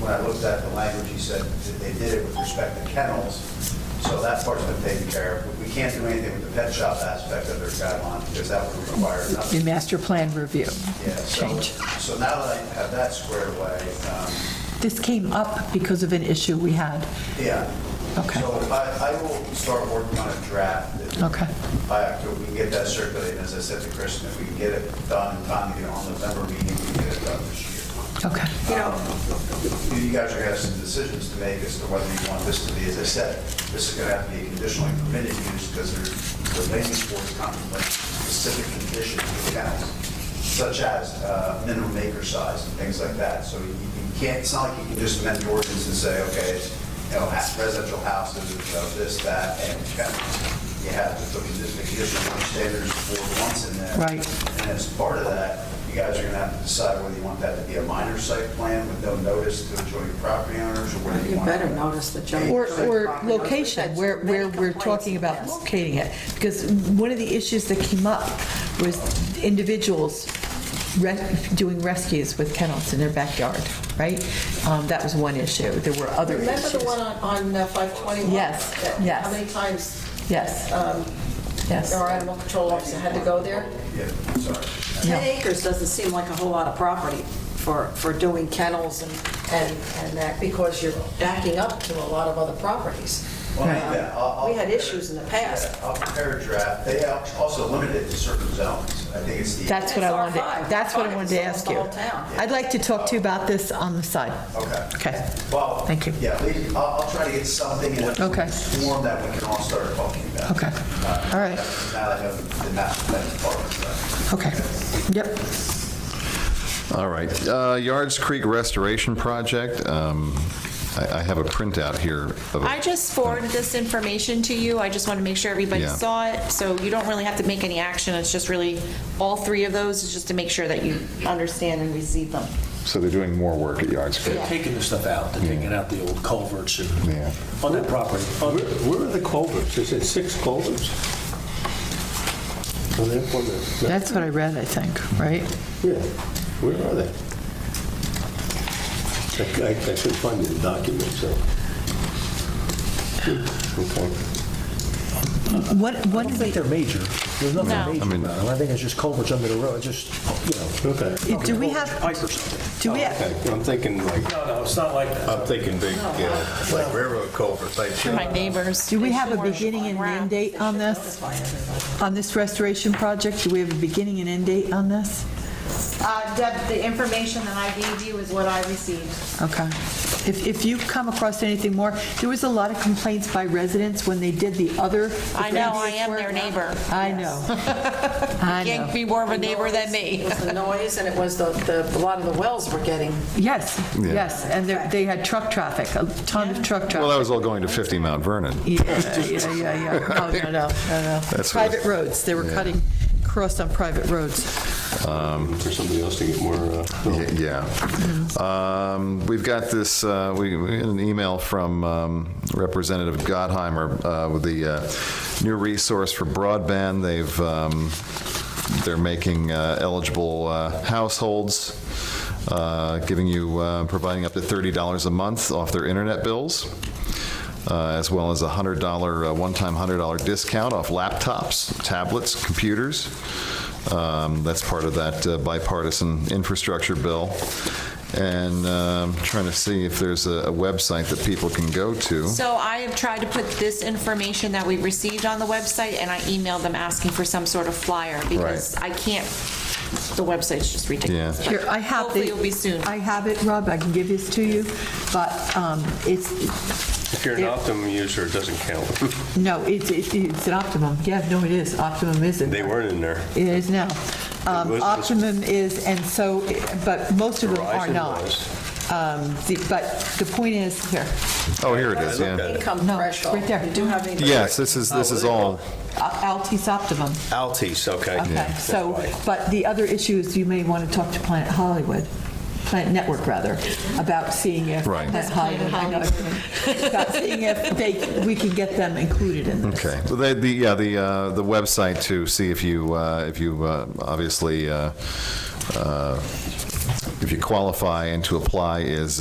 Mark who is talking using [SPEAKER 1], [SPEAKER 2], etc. [SPEAKER 1] when I looked at the language, he said that they did it with respect to kennels, so that part's been taken care of. We can't do anything with the pet shop aspect of their guideline, because that would require another.
[SPEAKER 2] The master plan review
[SPEAKER 1] Yeah, so-
[SPEAKER 2] change.
[SPEAKER 1] So now that I have that squared away, um,
[SPEAKER 2] This came up because of an issue we had.
[SPEAKER 1] yeah.
[SPEAKER 2] Okay.
[SPEAKER 1] So I, I will start working on a draft. that-
[SPEAKER 2] Okay.
[SPEAKER 1] By October, we can get that circulated, as I said to Kristen, if we can get it done in time, you know, on November meeting, we can get it done this year.
[SPEAKER 2] Okay.
[SPEAKER 3] You know,
[SPEAKER 1] You guys are gonna have some decisions to make as to whether you want this to be, as I said, this is gonna have to be a conditionally permitted use, because there, the land use board contemplates specific conditions for towns, such as uh, minimum acre size and things like that, so you you can't, it's not like you can just amend the ordinance and say, okay, it's, you know, ha- residential houses, you know, this, that, and kennels. You have to put the conditional standards for once in there.
[SPEAKER 2] Right.
[SPEAKER 1] And as part of that, you guys are going to have to decide whether you want that to be a minor site plan with no notice to adjoining property owners, or whether you
[SPEAKER 3] you
[SPEAKER 1] want.
[SPEAKER 3] better notice the junk.
[SPEAKER 4] Or,
[SPEAKER 3] food
[SPEAKER 4] or
[SPEAKER 3] property.
[SPEAKER 4] location, where,
[SPEAKER 3] Many
[SPEAKER 4] where we're
[SPEAKER 3] complaints,
[SPEAKER 4] talking about
[SPEAKER 3] yes.
[SPEAKER 4] locating it. Because one of the issues that came up was individuals res- doing rescues with kennels in their backyard, right? Um, That was one issue. There were other
[SPEAKER 5] Remember
[SPEAKER 4] issues.
[SPEAKER 5] the one on, on uh, 521?
[SPEAKER 4] Yes,
[SPEAKER 5] That-
[SPEAKER 4] yes.
[SPEAKER 5] How many times um,
[SPEAKER 4] Yes. Yes.
[SPEAKER 5] our animal control officer had to go there?
[SPEAKER 1] Yeah, sorry.
[SPEAKER 3] 10 acres doesn't seem like a whole lot of property for, for doing kennels and, and and that, because you're backing up to a lot of other properties.
[SPEAKER 1] Well, yeah, I'll- I'll-
[SPEAKER 3] We had issues in the past.
[SPEAKER 1] Yeah, I'll prepare a draft. They are also limited to certain zones. I think it's the.
[SPEAKER 4] That's what I
[SPEAKER 3] It's
[SPEAKER 4] wanted,
[SPEAKER 3] R5.
[SPEAKER 4] to- that's what I
[SPEAKER 3] Fine,
[SPEAKER 4] wanted to
[SPEAKER 3] it's
[SPEAKER 4] ask
[SPEAKER 3] the
[SPEAKER 4] you.
[SPEAKER 3] whole town.
[SPEAKER 4] I'd like to talk to you about this on the side.
[SPEAKER 1] Okay.
[SPEAKER 2] Okay.
[SPEAKER 1] Well.
[SPEAKER 2] Thank you.
[SPEAKER 1] Yeah, we- I'll, I'll try to get something in a
[SPEAKER 2] Okay.
[SPEAKER 1] form that we can all start talking about.
[SPEAKER 2] Okay.
[SPEAKER 1] Uh,
[SPEAKER 2] All right.
[SPEAKER 1] Now that I know the master plan part of that.
[SPEAKER 2] Okay. Yep.
[SPEAKER 6] All right. Uh, Yards Creek Restoration Project. Um, I I have a printout here of it.
[SPEAKER 7] I just forwarded this information to you. I just want to make sure everybody
[SPEAKER 6] Yeah.
[SPEAKER 7] saw it. So you don't really have to make any action. It's just really, all three of those is just to make sure that you understand and receive them.
[SPEAKER 6] So they're doing more work at Yards Creek.
[SPEAKER 7] Yeah.
[SPEAKER 8] Taking the stuff out, they're taking out the old culverts and-
[SPEAKER 6] Yeah.
[SPEAKER 8] on that property. on-
[SPEAKER 9] Oh, Where where are the culverts? Is it six culverts? Are they up on the- no,
[SPEAKER 2] That's what I read, I think, right?
[SPEAKER 9] Yeah, where are they? I- I I couldn't find the document, so. Okay.
[SPEAKER 2] What,
[SPEAKER 8] I
[SPEAKER 2] what
[SPEAKER 8] don't
[SPEAKER 2] is
[SPEAKER 8] think
[SPEAKER 2] it,
[SPEAKER 8] they're major. There's
[SPEAKER 7] No.
[SPEAKER 8] nothing major
[SPEAKER 6] I mean-
[SPEAKER 8] about them. I think it's just culverts under the road, just, you know.
[SPEAKER 9] Okay.
[SPEAKER 2] do we have-
[SPEAKER 8] Pipe or something.
[SPEAKER 2] do we, have?
[SPEAKER 9] Okay, I'm thinking like,
[SPEAKER 8] No, no, it's not like that.
[SPEAKER 9] I'm thinking big, yeah, like railroad culvert type
[SPEAKER 7] For
[SPEAKER 9] shit.
[SPEAKER 7] my neighbors.
[SPEAKER 2] do we have a
[SPEAKER 7] Or
[SPEAKER 2] beginning and an
[SPEAKER 7] wrap.
[SPEAKER 2] end date on this? On this restoration project, do we have a beginning and end date on this?
[SPEAKER 10] Uh, Deb, the information that I gave you is what I received.
[SPEAKER 2] Okay. If, if you come across anything more, there was a lot of complaints by residents when they did the other.
[SPEAKER 7] I know, I am their neighbor.
[SPEAKER 2] I know. I
[SPEAKER 7] Can't
[SPEAKER 2] know.
[SPEAKER 7] be more of a neighbor than
[SPEAKER 3] It
[SPEAKER 7] me.
[SPEAKER 3] was the noise, and it was the, the, a lot of the wells were getting
[SPEAKER 2] Yes, yes, and they're- they had truck traffic, a ton of truck
[SPEAKER 6] Well, that
[SPEAKER 2] traffic.
[SPEAKER 6] was all going to 50 Mount Vernon.
[SPEAKER 2] Yeah, yeah, yeah, yeah. No, no, no, no, no.
[SPEAKER 6] That's what-
[SPEAKER 2] Private roads, they were
[SPEAKER 6] Yeah.
[SPEAKER 2] cutting across on private roads.
[SPEAKER 9] For somebody else to get more, uh,
[SPEAKER 6] Y- Yeah. Um, We've got this, uh, we we had an email from um, Representative Gottheimer uh, with the uh, new resource for broadband. They've, um, they're making uh, eligible uh, households, uh, giving you, uh, providing up to $30 a month off their internet bills, uh, as well as a $100, uh, one-time $100 discount off laptops, tablets, computers. Um, That's part of that uh, bipartisan infrastructure bill. And um, trying to see if there's a a website that people can go to.
[SPEAKER 7] So I have tried to put this information that we received on the website, and I emailed them asking for some sort of flyer, because I can't, the website's just ridiculous.
[SPEAKER 2] Here, I have the...
[SPEAKER 7] Hopefully it'll be soon.
[SPEAKER 2] I have it, Rob, I can give this to you, but um, it's,
[SPEAKER 9] if you're an Optimum user, it doesn't count.
[SPEAKER 2] no, it's, it's it's an Optimum, yeah, no, it is, Optimum is in
[SPEAKER 9] They
[SPEAKER 2] there.
[SPEAKER 9] weren't in there.
[SPEAKER 2] It is now. Um,
[SPEAKER 9] was-
[SPEAKER 2] Optimum is, and so, but most of them are
[SPEAKER 9] Verizon
[SPEAKER 2] not.
[SPEAKER 9] was.
[SPEAKER 2] Um, the- But the point is, here,
[SPEAKER 6] Oh, here it is,
[SPEAKER 9] looked at
[SPEAKER 6] yeah.
[SPEAKER 9] it. Oh,
[SPEAKER 3] income
[SPEAKER 2] No,
[SPEAKER 3] threshold.
[SPEAKER 2] right there.
[SPEAKER 3] You do have any.
[SPEAKER 6] Yes, this is, this is all,
[SPEAKER 2] Al- Altis Optimum,
[SPEAKER 9] Altis, okay.
[SPEAKER 2] okay,
[SPEAKER 9] That's
[SPEAKER 2] so,
[SPEAKER 9] why.
[SPEAKER 2] but the other issue is you may want to talk to Planet Hollywood, Planet Network, rather, about seeing if.
[SPEAKER 6] Right.
[SPEAKER 2] Planet Hollywood, I know. About seeing if they, we can get them included in this.
[SPEAKER 6] okay. Well, they- the, yeah, the, uh, the website to see if you, uh, if you uh, obviously, uh, uh, if you qualify and to apply is